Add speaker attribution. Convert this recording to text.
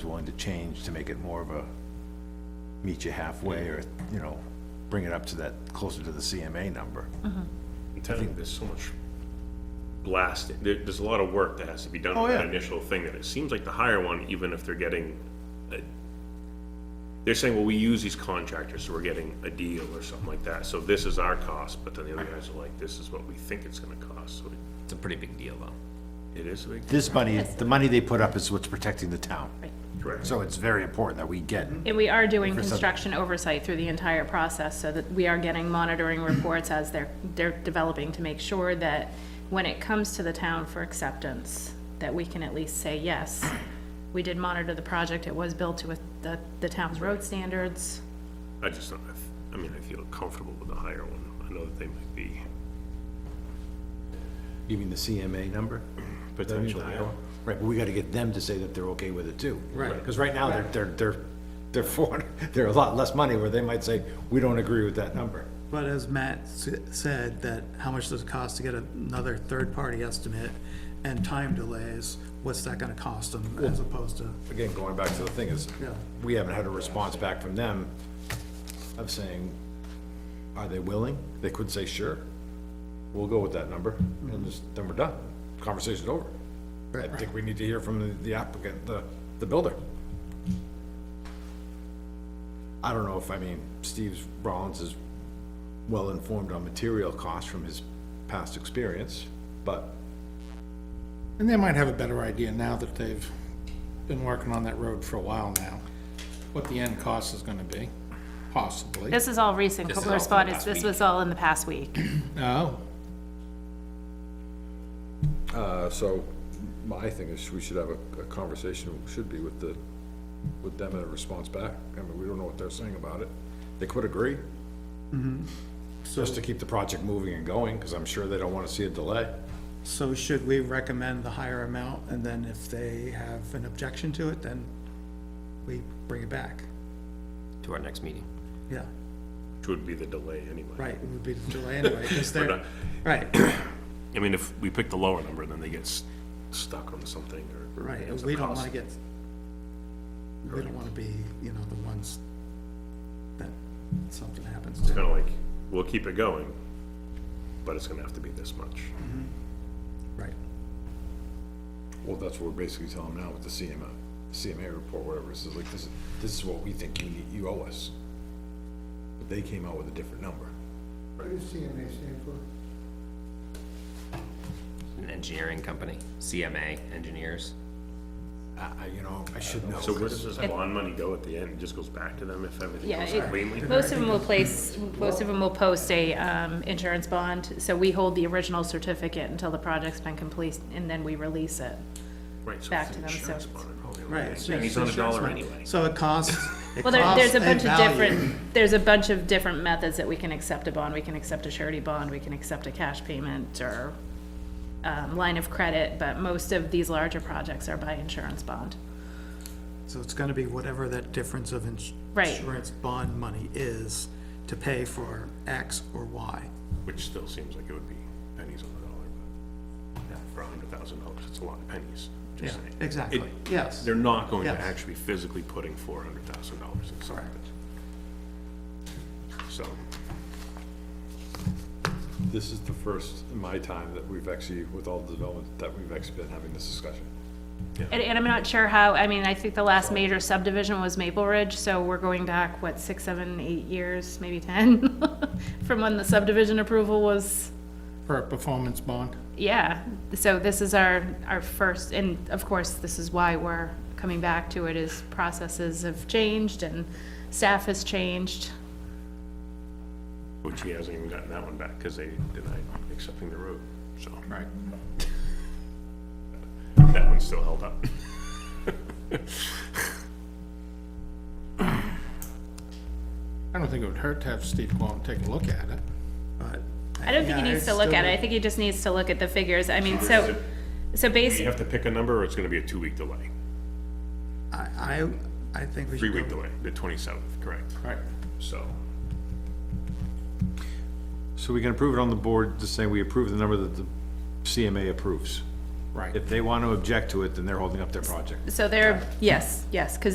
Speaker 1: willing to change to make it more of a meet you halfway or, you know, bring it up to that, closer to the CMA number.
Speaker 2: I'm telling you, there's so much blasting, there, there's a lot of work that has to be done
Speaker 1: Oh,
Speaker 2: with that
Speaker 1: yeah.
Speaker 2: initial thing, that it seems like the higher one, even if they're getting, a- they're saying, well, we use these contractors, so we're getting a deal or something like that, so this is our cost, but then the other guys are like, this is what we think it's gonna cost, so it-
Speaker 3: It's a pretty big deal, though.
Speaker 2: it is a big,
Speaker 1: This money, the money they put up is what's protecting the town.
Speaker 2: correct?
Speaker 1: So it's very important that we get,
Speaker 4: And we are doing
Speaker 1: For some-
Speaker 4: construction oversight through the entire process, so that we are getting monitoring reports as they're, they're developing to make sure that when it comes to the town for acceptance, that we can at least say, yes, we did monitor the project, it was built to the, the town's road standards.
Speaker 2: I just, don't- I f- I mean, I feel comfortable with the higher one, I know that they might be
Speaker 1: you mean the CMA number?
Speaker 2: potentially,
Speaker 1: Right, but we gotta get them to say that they're okay with it too.
Speaker 3: Right.
Speaker 1: Because right now, they're, they're, they're, they're four, they're a lot less money where they might say, we don't agree with that number.
Speaker 5: But as Matt s- said, that how much does it cost to get another third-party estimate and time delays, what's that gonna cost them as opposed to,
Speaker 1: Again, going back to the thing is,
Speaker 5: Yeah.
Speaker 1: we haven't had a response back from them of saying, are they willing? They could say, sure, we'll go with that number, and just, then we're done, conversation's over. I think we need to hear from the- the applicant, the, the builder. I don't know if, I mean, Steve Rollins is well-informed on material costs from his past experience, but
Speaker 6: And they might have a better idea now that they've been working on that road for a while now, what the end cost is gonna be, possibly.
Speaker 4: This is all recent,
Speaker 3: This is
Speaker 4: Copeland
Speaker 3: all from
Speaker 4: responded,
Speaker 3: the past
Speaker 4: this
Speaker 3: week.
Speaker 4: was all in the past week.
Speaker 6: Oh,
Speaker 7: Uh, So my thing is, we should have a, a conversation, should be with the, with them and a response back. I mean, we don't know what they're saying about it. They could agree,
Speaker 1: just to keep the project moving and going, because I'm sure they don't want to see a delay.
Speaker 5: so should we recommend the higher amount? And then if they have an objection to it, then we bring it back?
Speaker 3: To our next meeting.
Speaker 5: Yeah,
Speaker 2: which would be the delay anyway.
Speaker 5: right, it would be the delay anyway, 'cause they're, right,
Speaker 2: I mean, if we pick the lower number, then they get s- stuck on something or.
Speaker 5: right,
Speaker 2: ends
Speaker 5: and
Speaker 2: up
Speaker 5: we don't wanna
Speaker 2: costing-
Speaker 5: get, we don't wanna be, you know, the ones that something happens to.
Speaker 2: It's kinda like, we'll keep it going, but it's gonna have to be this much.
Speaker 5: Right.
Speaker 7: well, that's what we're basically telling them now with the CMA, CMA report, whatever, it says like, this, is- this is what we think you need, you owe us. But they came out with a different number.
Speaker 3: An engineering company, CMA engineers.
Speaker 1: I, I- you know, I should know.
Speaker 2: So where does this bond money go at the end? It just goes back to them if everything
Speaker 4: Yeah,
Speaker 2: goes
Speaker 4: it-
Speaker 2: cleanly?
Speaker 4: most of them will place, most of them will post a, um, insurance bond, so we hold the original certificate until the project's been complete, and then we release it.
Speaker 2: Right, so
Speaker 4: back
Speaker 2: it's
Speaker 4: to them, so
Speaker 2: insurance
Speaker 4: it's-
Speaker 2: bond and all the other
Speaker 5: Right.
Speaker 2: things.
Speaker 5: it's
Speaker 2: And he's on a
Speaker 5: just
Speaker 2: dollar
Speaker 5: insurance money.
Speaker 2: anyway.
Speaker 5: So it costs, it
Speaker 4: Well, there, there's
Speaker 5: costs
Speaker 4: a bunch of
Speaker 5: value.
Speaker 4: different, there's a bunch of different methods that we can accept a bond, we can accept a surety bond, we can accept a cash payment, or, um, line of credit, but most of these larger projects are by insurance bond.
Speaker 5: So it's gonna be whatever that difference of ins-
Speaker 4: Right.
Speaker 5: insurance bond money is to pay for X or Y.
Speaker 2: Which still seems like it would be pennies on the dollar, but for a hundred thousand dollars, it's a lot of pennies,
Speaker 5: Yeah,
Speaker 2: just saying.
Speaker 5: exactly,
Speaker 2: It-
Speaker 5: yes.
Speaker 2: They're not going to
Speaker 5: Yes.
Speaker 2: actually physically putting four hundred thousand dollars in something. So,
Speaker 7: This is the first in my time that we've actually, with all the development, that we've actually been having this discussion.
Speaker 4: And, and I'm not sure how, I mean, I think the last major subdivision was Maple Ridge, so we're going back, what, six, seven, eight years, maybe ten? From when the subdivision approval was,
Speaker 6: for a performance bond.
Speaker 4: yeah, so this is our, our first, and of course, this is why we're coming back to it, is processes have changed and staff has changed.
Speaker 2: which he hasn't even gotten that one back, cause they denied accepting the road, so.
Speaker 6: Right.
Speaker 2: That one's still held up.
Speaker 6: I don't think it would hurt to have Steve go out and take a look at it.
Speaker 5: But
Speaker 4: I don't think
Speaker 5: Yeah,
Speaker 4: he needs
Speaker 5: it's
Speaker 4: to look at
Speaker 5: still-
Speaker 4: it, I think he just needs to look at the figures, I mean, so, so
Speaker 2: You
Speaker 4: basically.
Speaker 2: have to pick a number, or it's gonna be a two-week delay,
Speaker 5: I, I, I think we should.
Speaker 2: three-week
Speaker 5: go-
Speaker 2: delay, the twenty-seventh, correct?
Speaker 6: Right.
Speaker 2: So,
Speaker 1: So we can approve it on the board, just saying we approve the number that the CMA approves.
Speaker 6: Right.
Speaker 1: If they want to object to it, then they're holding up their project.
Speaker 4: So they're, yes, yes, because